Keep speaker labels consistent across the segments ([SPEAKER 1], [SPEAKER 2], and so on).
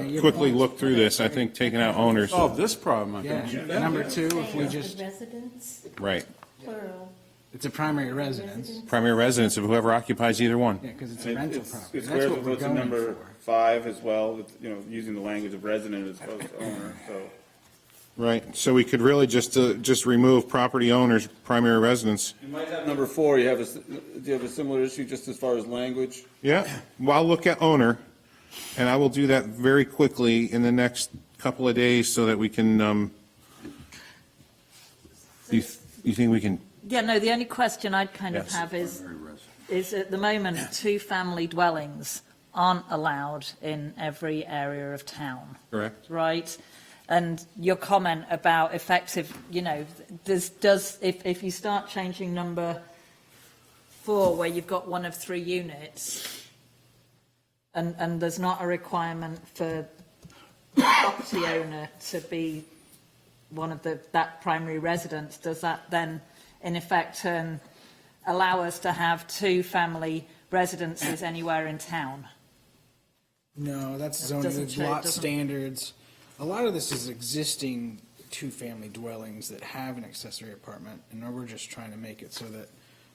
[SPEAKER 1] your
[SPEAKER 2] quickly
[SPEAKER 1] point.
[SPEAKER 2] look through this, I think taking out owners,
[SPEAKER 3] solve this problem, I think.
[SPEAKER 1] Yeah, number two, if we
[SPEAKER 4] Saying
[SPEAKER 1] just,
[SPEAKER 4] the Residents,
[SPEAKER 2] right,
[SPEAKER 4] plural,
[SPEAKER 1] it's a primary residence,
[SPEAKER 4] residents.
[SPEAKER 2] primary residence of whoever occupies either one.
[SPEAKER 1] yeah, because it's a
[SPEAKER 5] It-
[SPEAKER 1] rental
[SPEAKER 5] it's-
[SPEAKER 1] property.
[SPEAKER 5] It
[SPEAKER 1] That's
[SPEAKER 5] squares
[SPEAKER 1] what
[SPEAKER 5] with
[SPEAKER 1] we're
[SPEAKER 5] what's in
[SPEAKER 1] going
[SPEAKER 5] number
[SPEAKER 1] for.
[SPEAKER 5] five as well, with, you know, using the language of resident as opposed to owner, so.
[SPEAKER 2] Right, so we could really just, uh, just remove property owners, primary residence.
[SPEAKER 5] You might have number four, you have a, s- do you have a similar issue just as far as language?
[SPEAKER 2] Yeah, well, I'll look at owner, and I will do that very quickly in the next couple of days so that we can, um, you, th- you think we can,
[SPEAKER 6] Yeah, no, the only question I'd kind of
[SPEAKER 2] Yes.
[SPEAKER 6] have is, is at the moment, two-family dwellings aren't allowed in every area of town,
[SPEAKER 2] correct?
[SPEAKER 6] right? And your comment about effective, you know, this does, if, if you start changing number four, where you've got one of three units, and, and there's not a requirement for property owner to be one of the, that primary residence, does that then in effect turn, allow us to have two family residences anywhere in town?
[SPEAKER 1] No, that's
[SPEAKER 6] That
[SPEAKER 1] zoning,
[SPEAKER 6] doesn't
[SPEAKER 1] there's
[SPEAKER 6] change-
[SPEAKER 1] lot
[SPEAKER 6] doesn't-
[SPEAKER 1] standards. A lot of this is existing two-family dwellings that have an accessory apartment, and we're just trying to make it so that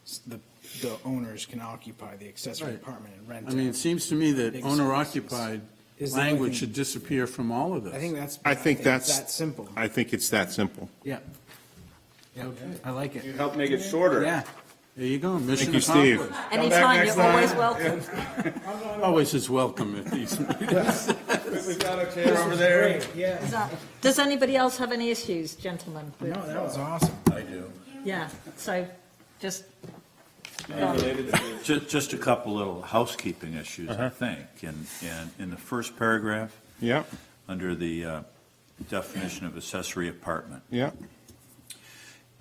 [SPEAKER 1] s- the, the owners can occupy the accessory
[SPEAKER 3] Right.
[SPEAKER 1] apartment and rent
[SPEAKER 3] I mean, it
[SPEAKER 1] it.
[SPEAKER 3] seems to me that
[SPEAKER 1] Makes
[SPEAKER 3] owner
[SPEAKER 1] sense.
[SPEAKER 3] occupied
[SPEAKER 1] Is the only
[SPEAKER 3] language
[SPEAKER 1] thing-
[SPEAKER 3] should disappear from all of this.
[SPEAKER 1] I think that's.
[SPEAKER 2] I think
[SPEAKER 1] it's
[SPEAKER 2] that's.
[SPEAKER 1] That simple.
[SPEAKER 2] I think it's that simple.
[SPEAKER 1] Yeah. Yeah, I like
[SPEAKER 5] You
[SPEAKER 1] it.
[SPEAKER 5] help make it shorter.
[SPEAKER 1] Yeah.
[SPEAKER 3] There you go, mission
[SPEAKER 2] you, Steve.
[SPEAKER 3] accomplished.
[SPEAKER 6] Anytime,
[SPEAKER 5] next
[SPEAKER 6] you're
[SPEAKER 5] time.
[SPEAKER 6] always welcome.
[SPEAKER 3] Always is welcome at these meetings.
[SPEAKER 5] We've got a chair over there.
[SPEAKER 1] Yeah.
[SPEAKER 6] Does anybody else have any issues, gentlemen?
[SPEAKER 1] No, that was awesome.
[SPEAKER 6] Yeah, so just,
[SPEAKER 5] Related to this.
[SPEAKER 7] Just, just a couple little housekeeping issues, I think. In, in, in the first paragraph,
[SPEAKER 2] Yeah,
[SPEAKER 7] under the uh, definition of accessory apartment,
[SPEAKER 2] yeah,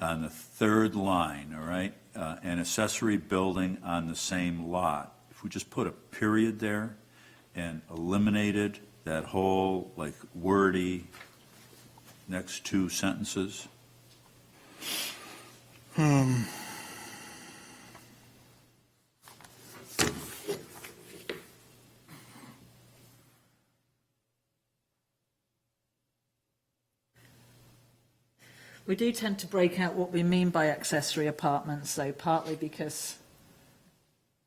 [SPEAKER 7] on the third line, all right, uh, an accessory building on the same lot. If we just put a period there and eliminated that whole, like, wordy next two sentences.
[SPEAKER 6] we do tend to break out what we mean by accessory apartments, though, partly because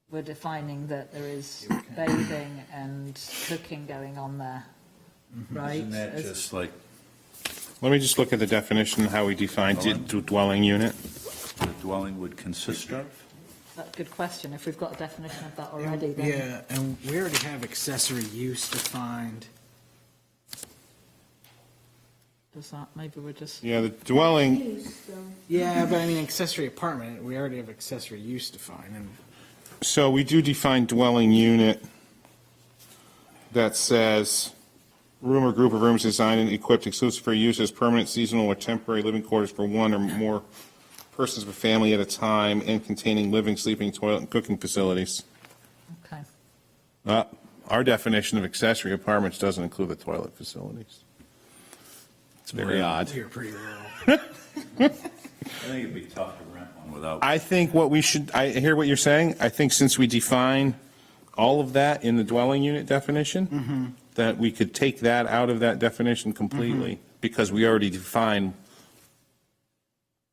[SPEAKER 6] we're defining that there is bathing and cooking going on there, right?
[SPEAKER 7] Isn't that
[SPEAKER 6] As-
[SPEAKER 7] just like
[SPEAKER 2] let me just look at the definition, of how we define d- dwelling unit.
[SPEAKER 7] the dwelling would consist of?
[SPEAKER 6] That's a good question, if we've got a definition of Oh, that
[SPEAKER 1] And-
[SPEAKER 6] already, then.
[SPEAKER 1] Yeah, and we already have accessory use defined.
[SPEAKER 6] Does that, maybe we're just,
[SPEAKER 2] Yeah, the dwelling,
[SPEAKER 4] Use, um,
[SPEAKER 1] Yeah, but I mean accessory apartment, we already have accessory use defined, and
[SPEAKER 2] So we do define dwelling unit that says room or group of rooms designed and equipped exclusive for use as permanent, seasonal, or temporary living quarters for one or more persons with family at a time and containing living, sleeping, toilet, and cooking facilities.
[SPEAKER 6] okay.
[SPEAKER 2] Uh, Our definition of accessory apartments doesn't include the toilet facilities. It's very odd.
[SPEAKER 1] you're pretty rural.
[SPEAKER 7] I think it'd be tough to rent one without.
[SPEAKER 2] I think what we should, I hear what you're saying. I think since we define all of that in the dwelling unit definition, that we could take that out of that definition completely, because we already define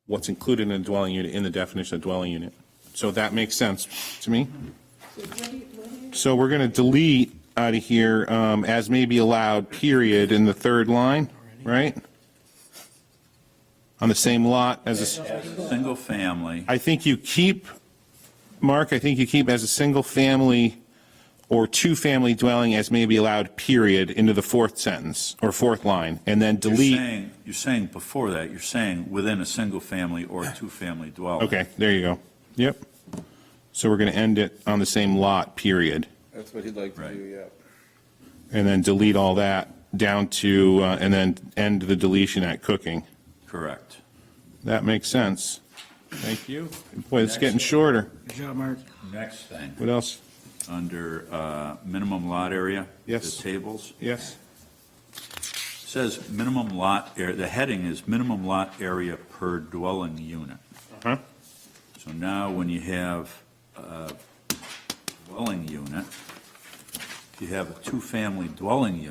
[SPEAKER 2] what's included in a dwelling unit, in the definition of dwelling unit. So that makes sense to me.
[SPEAKER 4] so what do you- what do you-
[SPEAKER 2] So we're going to delete out of here, um, as may be allowed, period, in the third line, right? On the same lot as a.
[SPEAKER 7] Single family.
[SPEAKER 2] I think you keep, Mark, I think you keep as a single-family or two-family dwelling as may be allowed, period, into the fourth sentence or fourth line, and then
[SPEAKER 7] You're
[SPEAKER 2] delete.
[SPEAKER 7] saying- You're saying before that, you're saying within a single-family or two-family dwelling.
[SPEAKER 2] Okay, there you go. Yep. So we're going to end it on the same lot, period,
[SPEAKER 5] That's what he'd like to
[SPEAKER 7] Right.
[SPEAKER 5] do, yeah.
[SPEAKER 2] and then delete all that down to, uh, and then end the deletion at cooking.
[SPEAKER 7] Correct.
[SPEAKER 2] That makes sense. Thank you. Boy, it's getting shorter.
[SPEAKER 1] Good job, Mark.
[SPEAKER 7] Next thing,
[SPEAKER 2] What else?
[SPEAKER 7] under uh, minimum lot area.
[SPEAKER 2] Yes.
[SPEAKER 7] The tables,
[SPEAKER 2] Yes?
[SPEAKER 7] says minimum lot, area. the heading is minimum lot area per dwelling unit.
[SPEAKER 2] Uh-huh.
[SPEAKER 7] So now when you have uh, a dwelling unit, if you have a two-family dwelling unit.